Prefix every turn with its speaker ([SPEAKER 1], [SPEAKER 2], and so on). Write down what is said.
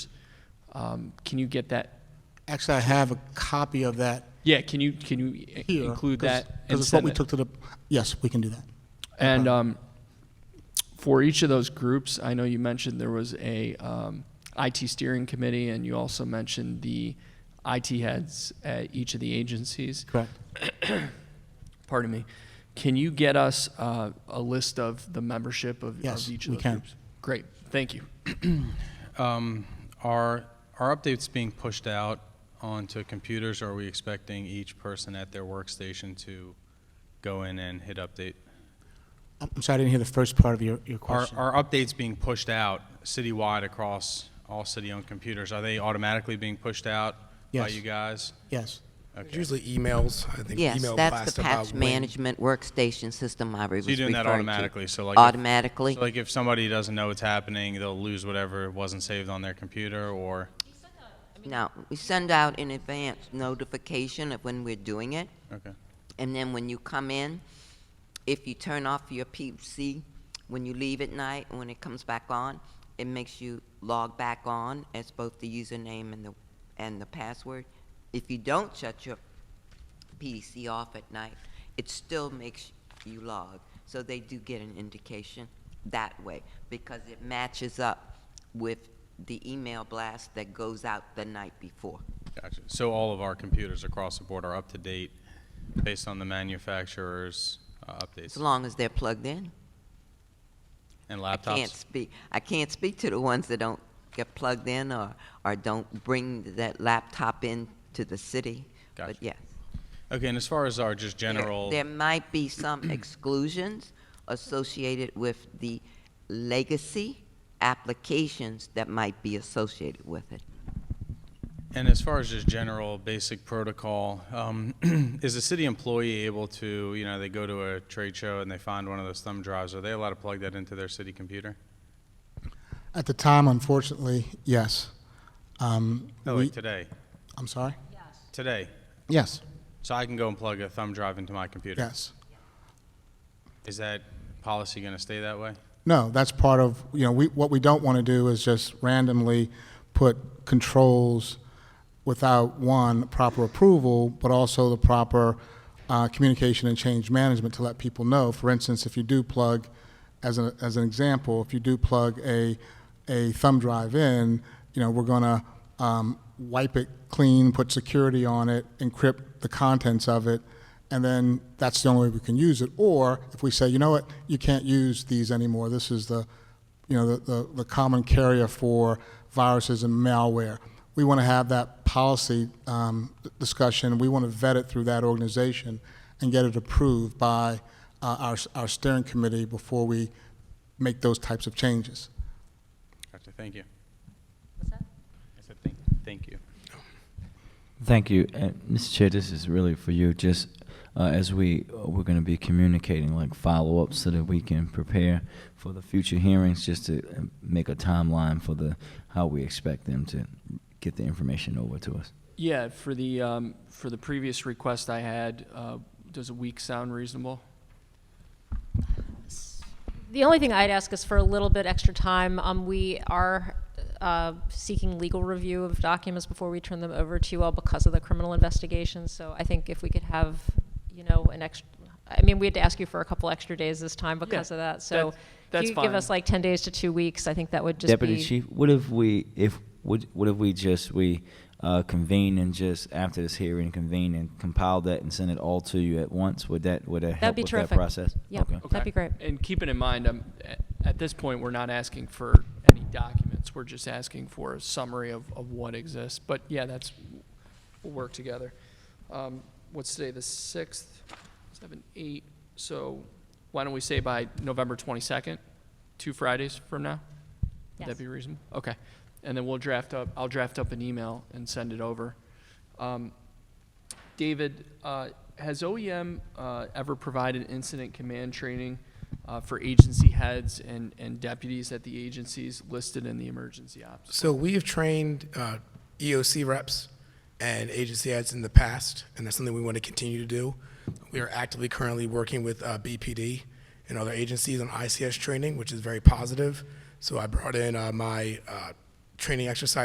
[SPEAKER 1] Um, Can you get that,
[SPEAKER 2] Actually, I have a copy of that
[SPEAKER 1] yeah, can you, can you i-
[SPEAKER 2] here.
[SPEAKER 1] include that? and
[SPEAKER 2] Because it's what
[SPEAKER 1] send
[SPEAKER 2] we
[SPEAKER 1] it?
[SPEAKER 2] took to the, yes, we can do that.
[SPEAKER 1] And um, for each of those groups, I know you mentioned there was a um, IT steering committee, and you also mentioned the IT heads at each of the agencies.
[SPEAKER 2] Correct.
[SPEAKER 1] Pardon me. Can you get us uh, a list of the membership of,
[SPEAKER 2] Yes,
[SPEAKER 1] of each of
[SPEAKER 2] we
[SPEAKER 1] those
[SPEAKER 2] can.
[SPEAKER 1] groups? Great, thank you.
[SPEAKER 3] Um, Are, are updates being pushed out onto computers, or are we expecting each person at their workstation to go in and hit update?
[SPEAKER 2] I'm I'm sorry, I didn't hear the first part of your, your
[SPEAKER 3] Are,
[SPEAKER 2] question.
[SPEAKER 3] are updates being pushed out citywide across all city-owned computers? Are they automatically being pushed out by
[SPEAKER 2] Yes.
[SPEAKER 3] you guys?
[SPEAKER 2] Yes.
[SPEAKER 3] Okay.
[SPEAKER 4] There's usually emails, I think
[SPEAKER 5] Yes,
[SPEAKER 4] email
[SPEAKER 5] that's
[SPEAKER 4] blast
[SPEAKER 5] the
[SPEAKER 4] about
[SPEAKER 5] patch
[SPEAKER 4] when-
[SPEAKER 5] management workstation system I was
[SPEAKER 3] So you're doing that
[SPEAKER 5] referring to.
[SPEAKER 3] automatically, so like if-
[SPEAKER 5] Automatically.
[SPEAKER 3] So like if somebody doesn't know what's happening, they'll lose whatever wasn't saved on their computer, or?
[SPEAKER 5] Now, we send out in advance notification of when we're doing it,
[SPEAKER 3] Okay.
[SPEAKER 5] and then when you come in, if you turn off your PC when you leave at night, and when it comes back on, it makes you log back on as both the username and the, and the password. If you don't shut your PC off at night, it still makes you log. So they do get an indication that way because it matches up with the email blast that goes out the night before.
[SPEAKER 3] Gotcha. So all of our computers across the board are up to date based on the manufacturer's uh,
[SPEAKER 5] As
[SPEAKER 3] updates
[SPEAKER 5] long as they're plugged in.
[SPEAKER 3] and
[SPEAKER 5] I can't
[SPEAKER 3] laptops?
[SPEAKER 5] speak. I can't speak to the ones that don't get plugged in or, or don't bring that laptop in to the city. But
[SPEAKER 3] Gotcha.
[SPEAKER 5] yes.
[SPEAKER 3] Okay, and as far as our just
[SPEAKER 5] there-
[SPEAKER 3] general,
[SPEAKER 5] There might be some exclusions associated with the legacy applications that might be associated with it.
[SPEAKER 3] and as far as just general basic protocol, um, is a city employee able to, you know, they go to a trade show and they find one of those thumb drives, are they allowed to plug that into their city computer?
[SPEAKER 2] At the time, unfortunately, yes. Um,
[SPEAKER 3] No,
[SPEAKER 2] we-
[SPEAKER 3] like today,
[SPEAKER 2] I'm sorry?
[SPEAKER 3] today.
[SPEAKER 2] Yes,
[SPEAKER 3] So I can go and plug a thumb drive into my computer?
[SPEAKER 2] yes.
[SPEAKER 3] Is that policy going to stay that way?
[SPEAKER 2] No, that's part of, you know, we, what we don't want to do is just randomly put controls without, one, proper approval, but also the proper uh, communication and change management to let people know. For instance, if you do plug, as an, as an example, if you do plug a, a thumb drive in, you know, we're going to um, wipe it clean, put security on it, encrypt the contents of it, and then that's the only way we can use it. Or if we say, you know what, you can't use these anymore. This is the, you know, the, the, the common carrier for viruses and malware. We want to have that policy um, discussion. We want to vet it through that organization and get it approved by uh, our, our steering committee before we make those types of changes.
[SPEAKER 3] Gotcha, thank you. What's that? I said, thank, thank you.
[SPEAKER 6] Thank you, and Mr. Chair. This is really for you. Just uh, as we uh, we're going to be communicating like follow ups so that we can prepare for the future hearings, just to uh, make a timeline for the how we expect them to get the information over to us.
[SPEAKER 1] Yeah, for the, um, for the previous request I had, uh, does a week sound reasonable?
[SPEAKER 7] The only thing I'd ask is for a little bit extra time. Um, we are uh, seeking legal review of documents before we turn them over to you all because of the criminal investigation. So I think if we could have, you know, an extra, I mean, we had to ask you for a couple extra days this time because
[SPEAKER 1] Yeah,
[SPEAKER 7] of that. So
[SPEAKER 1] that- that's
[SPEAKER 7] if you could give
[SPEAKER 1] fine.
[SPEAKER 7] us like 10 days to two weeks, I think that would just
[SPEAKER 6] Deputy
[SPEAKER 7] be.
[SPEAKER 6] Chief, what if we if what what if we just we uh, convene and just after this hearing convene and compile that and send it all to you at once? Would that would that help
[SPEAKER 7] That'd be
[SPEAKER 6] with
[SPEAKER 7] terrific.
[SPEAKER 6] that process?
[SPEAKER 7] Yep,
[SPEAKER 6] Okay.
[SPEAKER 7] that'd be great.
[SPEAKER 1] And keeping in mind, um, a- at this point, we're not asking for any documents. We're just asking for a summary of, of what exists. But yeah, that's, we'll work together. Um, What's today, the 6th, 7, 8? So why don't we say by November 22nd, two Fridays from now? Would that
[SPEAKER 7] Yes.
[SPEAKER 1] be reasonable? Okay. And then we'll draft up, I'll draft up an email and send it over. Um, David, uh, has OEM uh, ever provided incident command training uh, for agency heads and, and deputies at the agencies listed in the emergency ops?
[SPEAKER 4] So we have trained uh, EOC reps and agency heads in the past, and that's something we want to continue to do. We are actively currently working with uh, BPD and other agencies on ICS training, which is very positive. So I brought in uh, my uh, training exercise